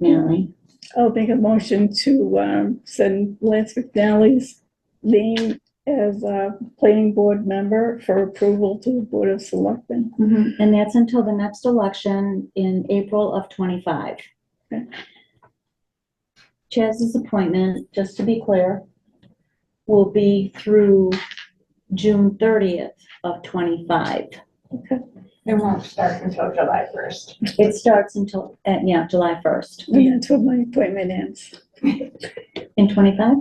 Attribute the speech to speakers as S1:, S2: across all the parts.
S1: McNally.
S2: I'll make a motion to um, send Lance McNally's name as a planning board member for approval to the Board of Selectmen.
S1: And that's until the next election in April of twenty-five.
S2: Okay.
S1: Chaz's appointment, just to be clear, will be through June thirtieth of twenty-five.
S3: It won't start until July first.
S1: It starts until, uh, yeah, July first
S2: Yeah, until my appointment ends.
S1: in twenty-five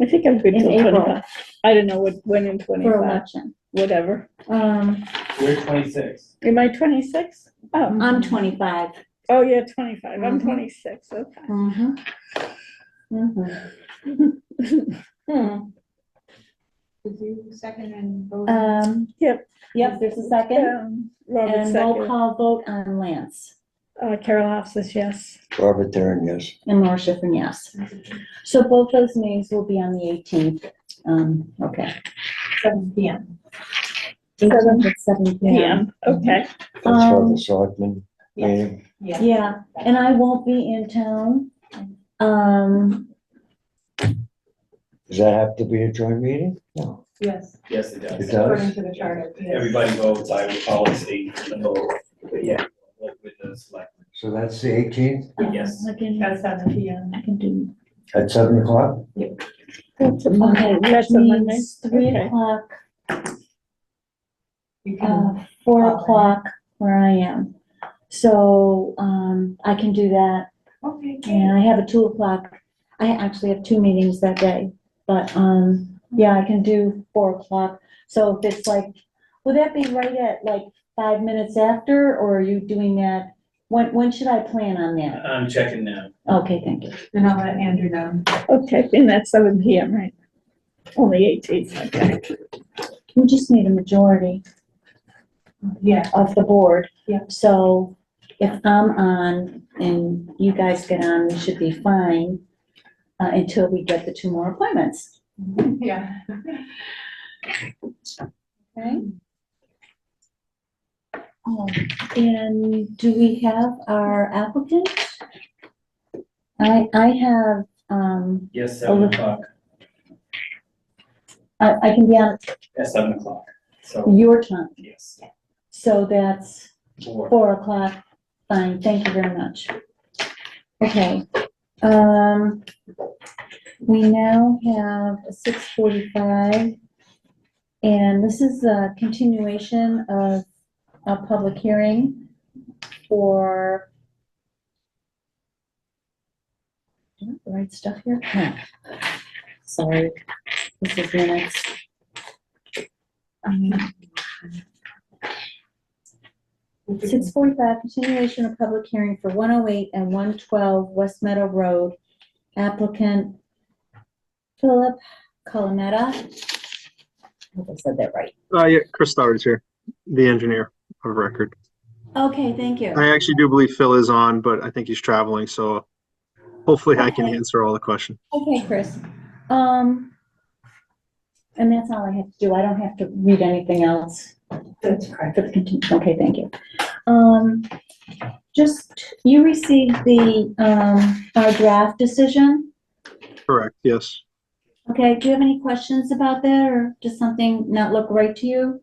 S2: I think I'm good
S1: In
S2: till
S1: April.
S2: twenty-five. I don't know what, when in
S1: for
S2: twenty-five,
S1: election.
S2: whatever.
S1: Um,
S4: We're twenty-six.
S2: Am I twenty-six? Oh,
S1: I'm twenty-five.
S2: oh, yeah, twenty-five. I'm
S1: Mhm.
S2: twenty-six, okay. Mm-hmm.
S1: Mhm. Mm-hmm. Mhm. Hmm.
S3: Did you second and vote?
S1: Um.
S2: Yep.
S1: Yep, there's a second.
S2: Um, Robert
S1: And roll
S2: second.
S1: call vote on Lance
S2: Uh, Carol Hoff says yes.
S5: Robert Theron, yes.
S1: and Laura Schiffern, yes. So both those names will be on the 18th. Um, okay.
S3: Seven P M.
S1: 18th at 7
S2: Yeah,
S1: PM.
S2: okay.
S5: That's for
S1: Um,
S5: the selectmen meeting.
S3: Yeah.
S1: Yeah, and I won't be in town. Um,
S5: Does that have to be a joint meeting? No.
S3: Yes,
S4: Yes, it
S5: It
S4: does.
S3: according
S5: does?
S3: to the charter. yes.
S4: Everybody votes, I would call it state, and vote, but yeah, like with the selectmen.
S5: So that's the eighteenth
S4: Yes.
S1: I can,
S3: At seven P M.
S1: I can do.
S5: at seven o'clock?
S2: That's a
S1: Okay,
S2: Monday.
S1: which
S2: That's a Monday.
S1: means three
S2: Okay.
S1: o'clock,
S3: You can,
S1: uh, four
S3: Follow.
S1: o'clock where I am. So, um, I can do that.
S3: okay,
S1: And I have a two o'clock, I actually have two meetings that day, but, um, yeah, I can do four o'clock. So if it's like, would that be right at like five minutes after, or are you doing that? When, when should I plan on that?
S4: I'm checking now.
S1: Okay, thank you.
S3: then I'll let Andrew know.
S2: Okay, and that's seven P M, right? Only eighteen, okay.
S1: We just need a majority
S3: Yeah,
S1: of the board.
S3: Yeah.
S1: So if I'm on and you guys get on, we should be fine, uh, until we get the two more appointments.
S3: yeah.
S1: Okay. Oh, and do we have our applicant? I, I have, um,
S4: Yes, seven
S1: Oh.
S4: o'clock,
S1: I, I can be on
S4: at seven o'clock, so,
S1: your time,
S4: yes.
S1: so that's
S4: Four.
S1: four o'clock. Fine, thank you very much. Okay, um, we now have six forty-five. And this is a continuation of a public hearing for. Do I have the right stuff here? No. Sorry, this is minutes. Um, Six forty-five, continuation of public hearing for one oh eight and one twelve West Meadow Road. Applicant Philip Colometta. I Hope I said that right.
S6: Uh, yeah, Chris Stoddard is here, the engineer of record.
S1: Okay, thank you.
S6: I actually do believe Phil is on, but I think he's traveling, so hopefully I can
S1: Okay.
S6: answer all the questions.
S1: Okay, Chris. Um, and that's all I have to do. I don't have to read anything else.
S3: That's correct.
S1: For the contin- okay, thank you. Um, just, you received the, um, our draft decision?
S6: Correct, yes.
S1: Okay, do you have any questions about that, or does something not look right to you?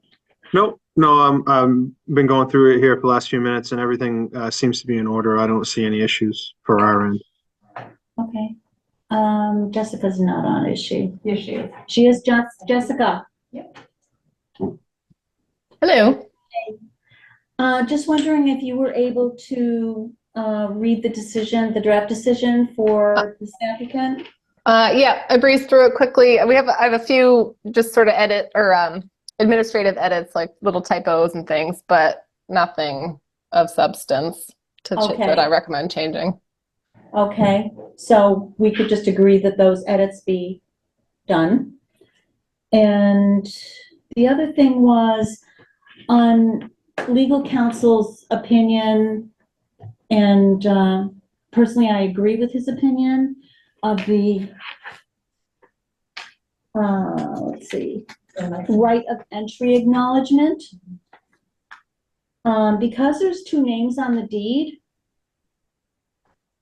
S6: Nope, no, I'm, I'm been going through it here for the last few minutes and everything, uh, seems to be in order. I don't see any issues for our end.
S1: Okay. Um, Jessica's not on, is she?
S3: Yes, she is.
S1: She is Jess, Jessica.
S7: Hello.
S1: Uh, just wondering if you were able to, uh, read the decision, the draft decision for this applicant?
S7: Uh, yeah, I breezed through it quickly. We have I have a few just sort of edit or um, administrative edits, like little typos and things, but nothing of substance to ch-
S1: Okay.
S7: that I recommend changing.
S1: Okay, so we could just agree that those edits be done. And the other thing was on legal counsel's opinion, and uh, personally, I agree with his opinion of the, uh, let's see,
S3: So, like,
S1: right of entry acknowledgement. Um, because there's two names on the deed,